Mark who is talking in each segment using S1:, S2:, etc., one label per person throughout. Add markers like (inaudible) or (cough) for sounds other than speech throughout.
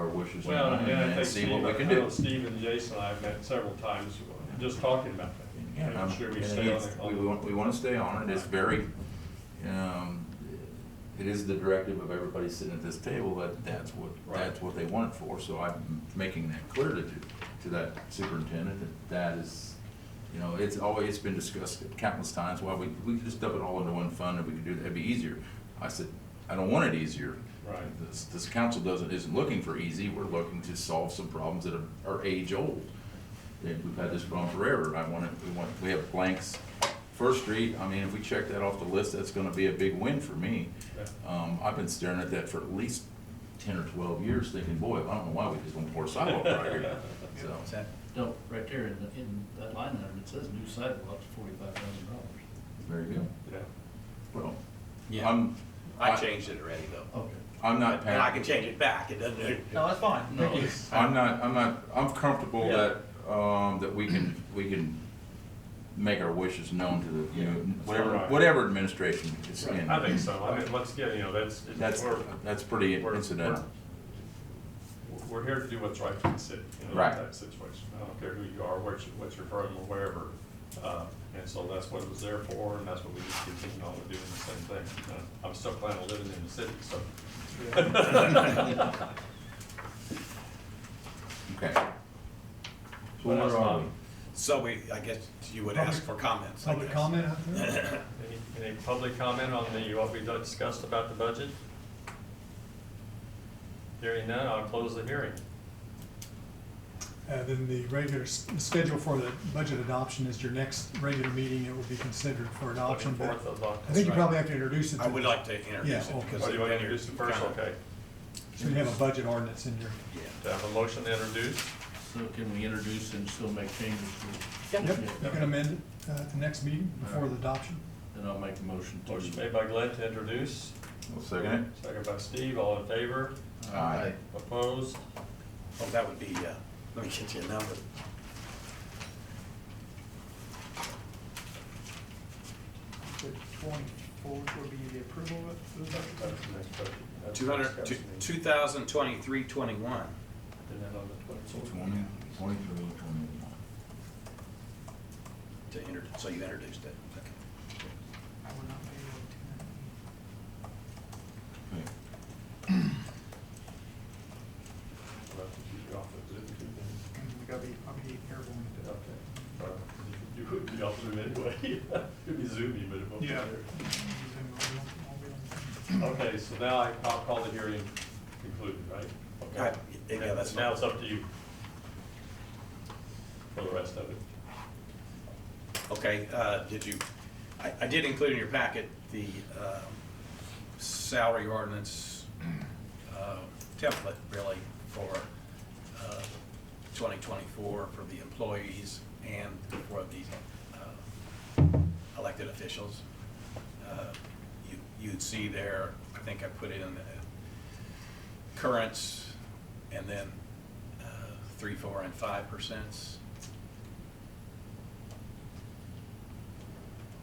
S1: Bush's
S2: Well,
S1: mind
S2: and I
S1: and
S2: think
S1: see what
S2: Steve,
S1: we
S2: I
S1: can
S2: know
S1: do.
S2: Steve and Jason and I have met several times, just talking about
S1: Yeah,
S2: that.
S1: um,
S2: Making sure we
S1: and
S2: stay
S1: again,
S2: on
S1: We
S2: it.
S1: want, we want to stay on it, it's very, um, it is the directive of everybody sitting at this table, that that's what,
S2: Right.
S1: that's what they want it for, so I'm making that clear to, to that superintendent, that that is, you know, it's always, it's been discussed countless times, why we, we could just dump it all into one fund, and we could do, that'd be easier. I said, I don't want it easier.
S2: Right.
S1: This, this council doesn't, isn't looking for easy, we're looking to solve some problems that are- are age-old. Yeah, we've had this problem forever. I want to, we want, we have blanks. First Street, I mean, if we check that off the list, that's gonna be a big win for me.
S2: Yeah.
S1: Um, I've been staring at that for at least ten or twelve years thinking, boy, I don't know why we just don't pour sidewalk right
S3: (laughs)
S1: here. So,
S4: Is that-
S5: No, right there in, the- in that line item, it says new sidewalks, forty-five thousand dollars.
S1: there you go.
S2: Yeah.
S1: Well,
S4: Yeah.
S6: Um,
S1: I'm,
S3: I
S1: I,
S3: changed it already though.
S5: Okay.
S1: I'm not,
S3: And I
S1: pa-
S3: can change it back, it doesn't,
S4: No, that's fine.
S5: No,
S4: Thank you.
S5: it's-
S1: I'm not, I'm not, I'm comfortable
S3: Yeah.
S1: that, um, that we can, we can make our wishes known to the, you know, whatever,
S2: Right.
S1: whatever administration is in.
S2: I think so. I mean, once again, you know, that's, it's-
S1: That's,
S2: we're,
S1: that's pretty
S2: we're-
S1: incidental.
S2: we're here to do what's right for the city, you know,
S1: Right.
S2: in that situation. I don't care who you are, what you- what's your program or wherever. Uh, And so that's what it was there for, and that's what we just continue on with doing the same thing. Uh, I'm still planning on living in the city, so.
S1: Okay. So
S2: What
S1: where
S2: else,
S1: are
S2: Bob?
S1: we?
S3: so we, I guess you would ask for comments, I
S4: Public
S3: guess.
S4: comment out there?
S2: Any, any public comment on the, what we discussed about the budget? Hearing none, I'll close the hearing.
S7: Uh, Then the regular, s- the schedule for the budget adoption is your next regular meeting. It will be considered for adoption. but
S2: 24th of October.
S7: I think you probably have to introduce it.
S3: I
S7: to-
S3: would like to introduce
S7: Yeah,
S3: it because.
S2: Oh, you want to
S3: it's
S2: introduce
S3: been
S2: it first,
S3: kinda-
S2: okay.
S7: So you have a budget ordinance in your,
S2: Do I have a motion to introduce?
S5: So can we introduce and still make changes?
S7: yep,
S5: Yeah.
S7: you can amend it uh, at the next meeting before the adoption.
S5: Then I'll make a motion to.
S2: Motion made by Glenn to introduce,
S1: Well, second
S2: second by Steve, all in favor,
S1: it? Aye.
S2: opposed?
S3: Oh, that would be, uh, let me get you a number.
S8: The twenty-fourth would be the approval of it.
S2: That's the next budget. That's
S3: Two
S2: the
S3: hundred, two,
S2: discussion.
S3: two thousand twenty-three, twenty-one.
S2: And then on the 24th.
S1: Twenty, twenty-three, twenty-one.
S3: To inter, so you introduced it, okay.
S8: I would not be able to.
S1: Okay.
S2: We'll have to keep you off of Zoom, too, then.
S8: And we gotta be, I'll be careful when we do
S2: Okay. Uh, You would be off Zoom anyway. (laughs) You'd be Zoomy, but it won't be
S8: Yeah.
S2: there.
S8: it.
S2: Okay, so now I- I'll call the hearing concluded, right?
S3: Right,
S2: Okay.
S3: yeah, that's
S2: Now it's up to you for the rest of it.
S3: Okay, uh, did you, I, I did include in your packet the, um, salary ordinance, uh, template really for, uh, twenty twenty-four for the employees and for the, uh, elected officials. Uh, You, you'd see there, I think I put in the currents and then, uh, three, four, and five percents.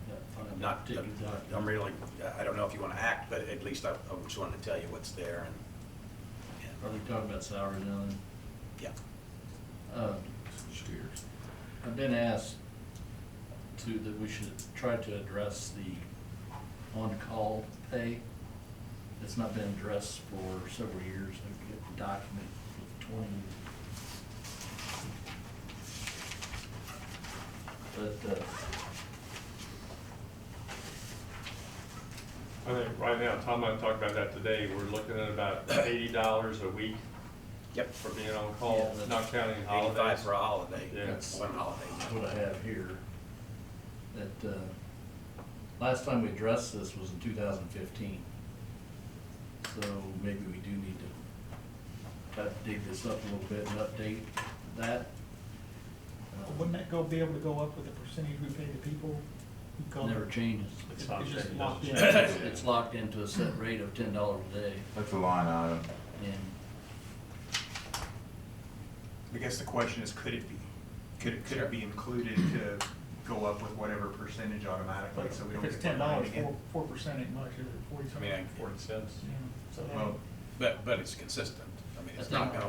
S5: Yeah, on a
S3: Not,
S5: particular
S3: I'm
S5: document.
S3: really, I don't know if you want to act, but at least I I just wanted to tell you what's there and,
S5: Are they talking about salary now then?
S3: and, yeah.
S5: Uh,
S1: Cheers.
S5: I've been asked to, that we should try to address the on-call pay. It's not been addressed for several years. I've got the document for twenty. But, uh,
S2: I think right now, Tom and I talked about that today, we're looking at about eighty dollars a week
S3: Yep.
S2: for being on call,
S5: Yeah, that's-
S2: not counting
S3: Eighty-five
S2: holidays.
S3: for a holiday.
S2: Yeah.
S5: That's-
S3: One holiday.
S5: what I have here, that, uh, last time we addressed this was in two thousand fifteen. So maybe we do need to uh, dig this up a little bit and update that. Uh,
S8: Wouldn't that go, be able to go up with the percentage we pay the people? who call?
S5: Uh, Never changes.
S2: It's
S8: It's
S2: not
S8: just
S2: changed.
S8: locked
S6: (laughs)
S8: in.
S5: It's it's locked into a set rate of ten dollars a day,
S1: That's a line item.
S5: and
S6: I guess the question is, could it be, could it, could it be included to go up with whatever percentage automatically, so we don't
S8: If
S6: get
S8: it's
S6: that
S8: ten dollars,
S6: again?
S8: four, four percent ain't much, is it forty
S3: I mean,
S8: something?
S3: I-
S2: Forty cents.
S8: Yeah.
S2: So-
S6: Well,
S3: but, but it's consistent. I mean, it's
S5: I
S3: not
S5: think-
S3: going to